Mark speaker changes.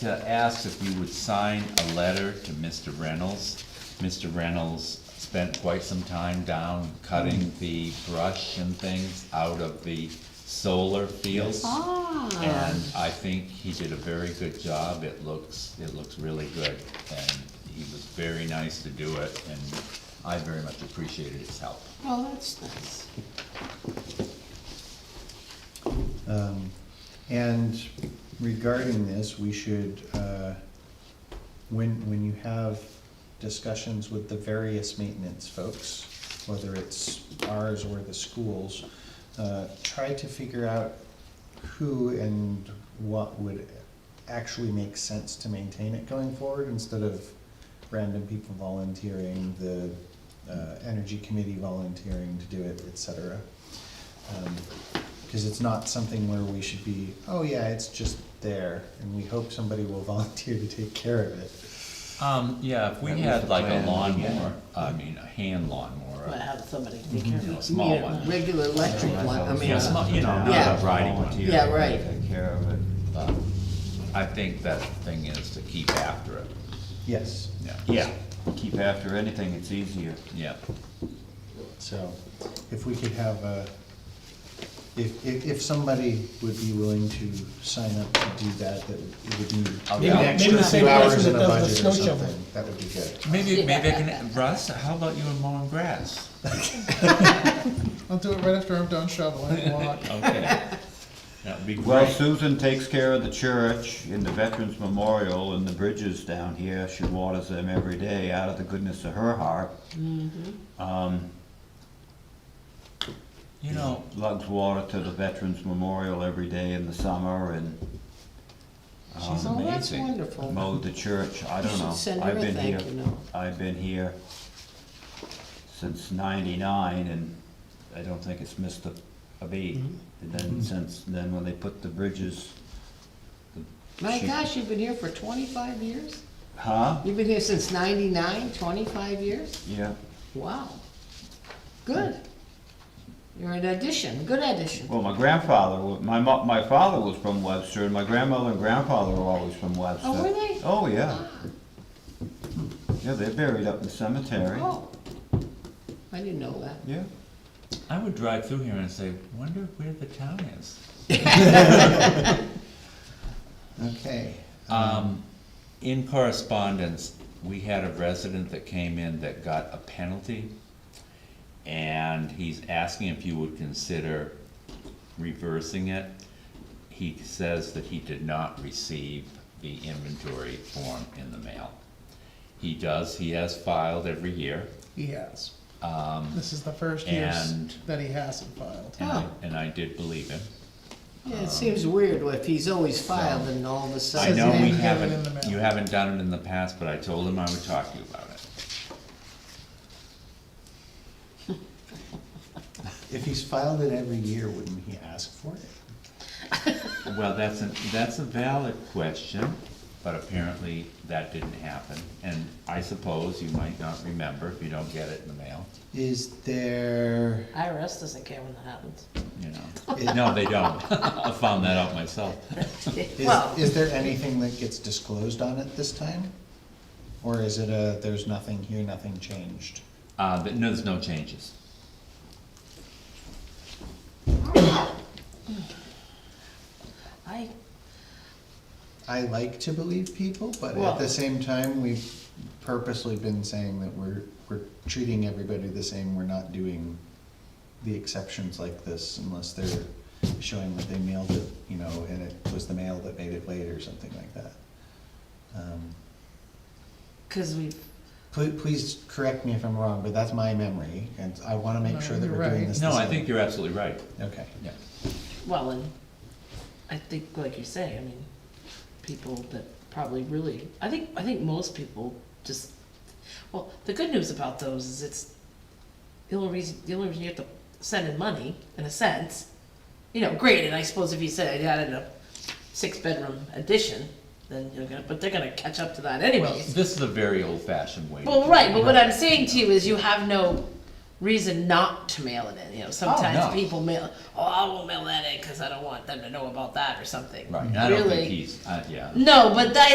Speaker 1: to ask if you would sign a letter to Mr. Reynolds. Mr. Reynolds spent quite some time down cutting the brush and things out of the solar fields.
Speaker 2: Ah,
Speaker 1: And I think he did a very good job, it looks, it looks really good, and he was very nice to do it, and I very much appreciated his help.
Speaker 2: well, that's nice.
Speaker 3: Um, And regarding this, we should, uh, when, when you have discussions with the various maintenance folks, whether it's ours or the schools, uh, try to figure out who and what would actually make sense to maintain it going forward instead of random people volunteering, the uh, energy committee volunteering to do it, et cetera. Um, Because it's not something where we should be, oh yeah, it's just there, and we hope somebody will volunteer to take care of it.
Speaker 1: Um, yeah, if we
Speaker 4: That was
Speaker 1: had
Speaker 4: the
Speaker 1: like a
Speaker 4: plan,
Speaker 1: lawnmower, I mean, a hand lawnmower,
Speaker 2: Well, have somebody take care of
Speaker 1: You know,
Speaker 2: it.
Speaker 1: small
Speaker 2: You know,
Speaker 1: one.
Speaker 2: Regular electric one, I mean,
Speaker 1: Yeah, small- you know,
Speaker 2: Yeah.
Speaker 1: not a riding one.
Speaker 2: Yeah, right.
Speaker 4: Oh, Take care of it.
Speaker 1: but Uh, I think that thing is to keep after it,
Speaker 3: Yes,
Speaker 1: yeah.
Speaker 4: Yeah. Keep after anything, it's easier.
Speaker 1: Yeah,
Speaker 3: so if we could have a, if, if, if somebody would be willing to sign up to do that, that it would need
Speaker 1: I'll-
Speaker 3: maybe an
Speaker 1: Maybe-
Speaker 3: extra
Speaker 5: maybe the
Speaker 3: few
Speaker 5: same
Speaker 3: hours
Speaker 5: person
Speaker 3: in
Speaker 5: that
Speaker 3: a
Speaker 5: does the
Speaker 3: budget or
Speaker 5: snow shovel.
Speaker 3: something, that would be good.
Speaker 1: maybe, maybe I can, Russ, how about you and mowing grass?
Speaker 5: I'll do it right after I'm done shoveling, walk.
Speaker 1: Okay, that would be
Speaker 4: Well,
Speaker 1: great.
Speaker 4: Susan takes care of the church and the Veterans Memorial and the bridges down here. She waters them every day out of the goodness of her heart. Um,
Speaker 1: You know,
Speaker 4: lugs water to the Veterans Memorial every day in the summer and
Speaker 1: she's
Speaker 2: Oh, that's
Speaker 1: amazing.
Speaker 2: wonderful.
Speaker 4: mowed the church. I
Speaker 2: You
Speaker 4: don't
Speaker 2: should
Speaker 4: know.
Speaker 2: send her
Speaker 4: I've
Speaker 2: a
Speaker 4: been here.
Speaker 2: thank you note.
Speaker 4: I've been here since ninety-nine and I don't think it's missed a, a beat.
Speaker 2: Mm-hmm.
Speaker 4: And then since, then when they put the bridges,
Speaker 2: My
Speaker 4: She-
Speaker 2: gosh, you've been here for twenty-five years?
Speaker 4: huh?
Speaker 2: You've been here since ninety-nine, twenty-five years?
Speaker 4: Yeah,
Speaker 2: Wow. Good. You're an addition, good addition.
Speaker 4: well, my grandfather, wa- my mo- my father was from Webster and my grandmother and grandfather were always from Webster.
Speaker 2: Oh, were they?
Speaker 4: Oh, yeah.
Speaker 2: Ah,
Speaker 4: Yeah, they're buried up in the cemetery.
Speaker 2: Oh. I didn't know that.
Speaker 4: Yeah.
Speaker 1: I would drive through here and say, wonder where the town is.
Speaker 3: Okay,
Speaker 1: Um, in correspondence, we had a resident that came in that got a penalty. And he's asking if you would consider reversing it. He says that he did not receive the inventory form in the mail. He does, he has filed every year,
Speaker 5: He has. This is the first year s-
Speaker 1: and-
Speaker 5: that he hasn't filed.
Speaker 1: and I,
Speaker 2: Oh.
Speaker 1: and I did believe him.
Speaker 2: Yeah, it seems weird if he's always filed and all of a
Speaker 1: I
Speaker 2: sudden.
Speaker 1: know
Speaker 5: they
Speaker 1: we
Speaker 5: didn't have it in the
Speaker 1: haven't,
Speaker 5: mail.
Speaker 1: you haven't done it in the past, but I told him I would talk to you about it.
Speaker 3: if he's filed it every year, wouldn't he ask for it?
Speaker 1: Well, that's a, that's a valid question, but apparently that didn't happen. And I suppose you might not remember if you don't get it in the mail,
Speaker 3: Is there,
Speaker 6: IRS doesn't care when that happens.
Speaker 1: you know. No, they don't. I found that out myself.
Speaker 3: is,
Speaker 6: Well-
Speaker 3: is there anything that gets disclosed on it this time? Or is it a, there's nothing here, nothing changed?
Speaker 1: Uh, but no, there's no changes.
Speaker 6: I,
Speaker 3: I like to believe people, but at
Speaker 2: Well-
Speaker 3: the same time, we've purposely been saying that we're, we're treating everybody the same, we're not doing the exceptions like this unless they're showing that they mailed it, you know, and it was the mail that made it late or something like that. Um,
Speaker 6: cause we,
Speaker 3: Please, please correct me if I'm wrong, but that's my memory, and I wanna
Speaker 5: No,
Speaker 3: make sure that
Speaker 5: you're
Speaker 3: we're doing
Speaker 5: right.
Speaker 3: this the
Speaker 1: No,
Speaker 3: same.
Speaker 1: I think you're absolutely right,
Speaker 3: Okay.
Speaker 1: yeah.
Speaker 6: well, and I think, like you say, I mean, people that probably really, I think, I think most people just, well, the good news about those is it's, the only reason, the only reason you have to send in money, in a sense, you know, granted, I suppose if you said I had a six-bedroom addition, then you're gonna, but they're gonna catch up to that anyways.
Speaker 1: Well, this is a very old fashioned way. to
Speaker 6: Well,
Speaker 1: do
Speaker 6: right,
Speaker 1: it.
Speaker 6: but what I'm saying to you is you have no reason not to mail it in, you know,
Speaker 1: Oh, no.
Speaker 6: sometimes people mail, oh, I won't mail that in, cause I don't want them to know about that or something.
Speaker 1: Right, I don't think
Speaker 6: Really?
Speaker 1: he's, uh, yeah.
Speaker 6: No, but that,